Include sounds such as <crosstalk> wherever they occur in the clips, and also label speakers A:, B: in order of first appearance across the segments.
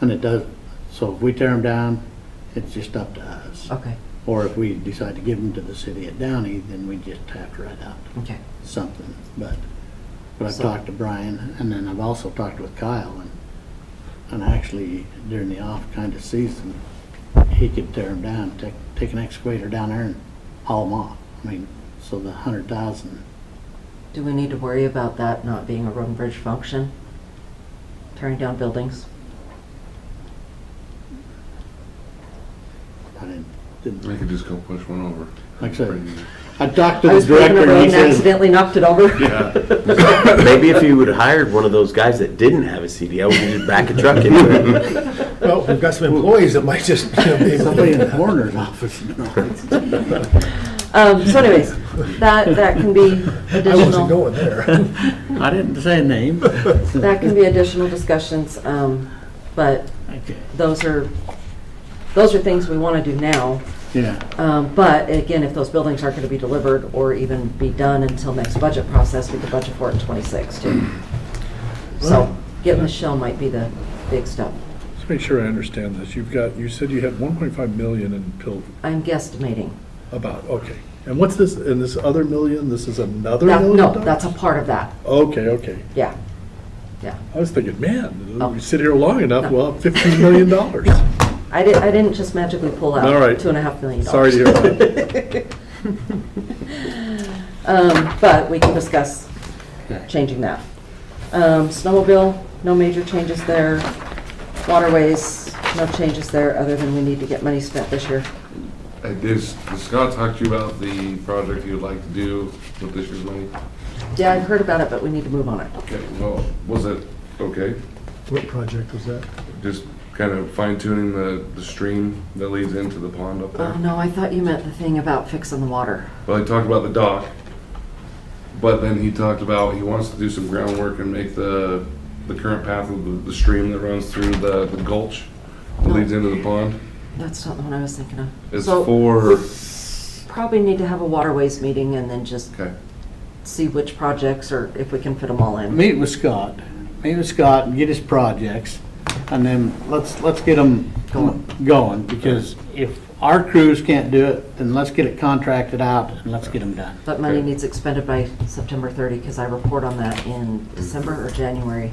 A: And it does, so if we tear them down, it's just up to us.
B: Okay,
A: Or if we decide to give them to the city at Downey, then we just have to write out
B: okay.
A: something, but, but I've
B: So-
A: talked to Brian, and then I've also talked with Kyle, and, and actually during the off kind of season, he could tear them down, take, take an excavator down there and haul them off. I mean, so the hundred thousand,
B: Do we need to worry about that not being a road and bridge function? Tearing down buildings?
A: I didn't, didn't,
C: I could just go push one over.
A: like I said, I talked to
B: I
A: the
B: was paving a
A: director,
B: road
A: and he
B: and
A: says,
B: accidentally knocked it over?
D: Maybe if you would have hired one of those guys that didn't have a CDL, we could just back a truck into it.
E: Well, we've got some employees that might just, you know, be.
A: somebody in the coroner's office.
B: <laughs> <laughs> Um, so anyways, that, that can
E: <laughs>
B: be
E: I wasn't
B: additional,
E: going there.
A: I didn't say a name.
B: that can be additional discussions, um, but
A: Okay.
B: those are, those are things we want to do now.
A: Yeah,
B: Um, but again, if those buildings aren't going to be delivered or even be done until next budget process, we could budget for it in '26 too. So getting the shell might be the big step.
F: <laughs> Just make sure I understand this. You've got, you said you had 1.5 million in pill,
B: I'm guesstimating.
F: about, okay. And what's this, and this other million, this is another
B: That-
F: million?
B: No,
F: dollars?
B: that's a part of that,
F: Okay, okay.
B: yeah.
F: I was thinking, man,
B: Oh.
F: we sit here long enough,
B: No.
F: we'll have 15
B: <laughs>
F: million dollars.
B: I didn't, I didn't just magically pull out
F: All right.
B: two and a half million
F: Sorry
B: dollars.
F: to hear that.
B: Um, but we can discuss changing that. Um, snowmobile, no major changes there. Waterways, no changes there, other than we need to get money spent this year.
C: I did, Scott talked to you about the project you'd like to do with this year's money?
B: Yeah, I've heard about it, but we need to move on it.
C: Okay, well, was it okay?
E: What project was that?
C: Just kind of fine tuning the, the stream that leads into the pond up
B: Oh,
C: there?
B: no, I thought you meant the thing about fixing the water.
C: Well, he talked about the dock, but then he talked about, he wants to do some groundwork and make the, the current path of the, the stream that runs through the the gulch that leads into the pond.
B: That's not the one I was thinking of.
C: It's
B: So,
C: for,
B: Probably need to have a waterways meeting and then just
C: okay,
B: see which projects or if we can fit them all in.
A: meet with Scott, meet with Scott and get his projects, and then let's, let's get them going, because if our crews can't do it, then let's get it contracted out and let's get them done.
B: But money
C: Okay.
B: needs expended by September 30, because I report on that in December or January.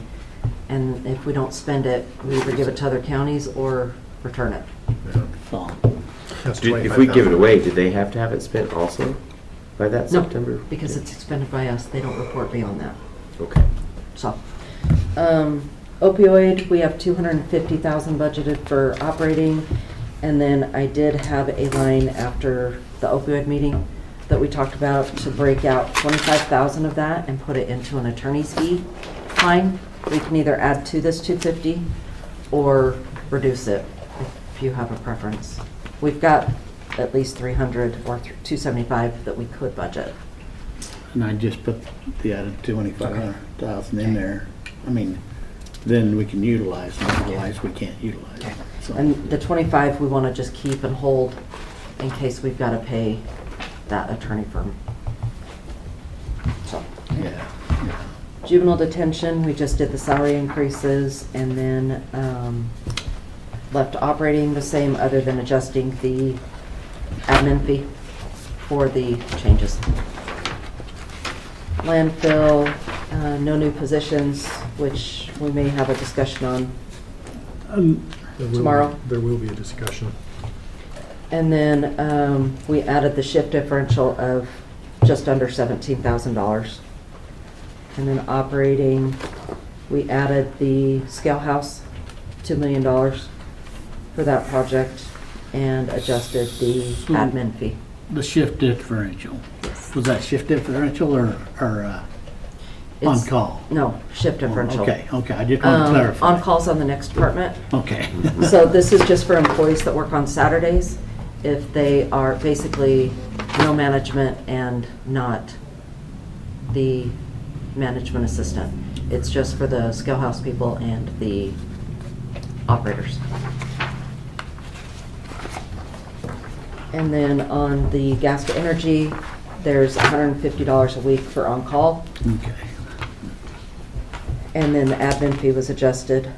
B: And if we don't spend it, we either give it to other counties or return it.
A: So,
E: That's
D: Did- If we give it away, did they have to have it spent also by that
B: No,
D: September?
B: because it's expended by us, they don't report beyond that,
D: Okay.
B: so. um, Opioid, we have 250,000 budgeted for operating. And then I did have a line after the opioid meeting that we talked about to break out 25,000 of that and put it into an attorney's fee line. We can either add to this 250 or reduce it if you have a preference. We've got at least 300 or 275 that we could budget.
A: And I just put the added twenty-five hundred thousand in there. I mean, then we can utilize, them, otherwise we can't utilize. them. So,
B: And the 25, we want to just keep and hold in case we've got to pay that attorney firm. So,
A: yeah.
B: juvenile detention, we just did the salary increases and then um, left operating the same, other than adjusting the admin fee for the changes. Landfill, uh, no new positions, which we may have a discussion on
F: Um,
B: tomorrow.
E: There will be a discussion.
B: And then um, we added the shift differential of just under $17,000. And then operating, we added the scale house, $2 million for that project, and adjusted the
A: So-
B: admin fee.
A: The shift differential,
B: Yes.
A: was that shift differential or, or uh, on
B: It's-
A: call? Oh,
B: No, shift differential.
A: Okay, okay, I just want to
B: Um,
A: clarify.
B: On calls on the next department.
A: Okay. <laughs>
B: So this is just for employees that work on Saturdays, if they are basically no management and not the management assistant. It's just for the scale house people and the operators. And then on the gas to energy, there's $150 a week for on-call.
A: Okay.
B: And then the admin fee was adjusted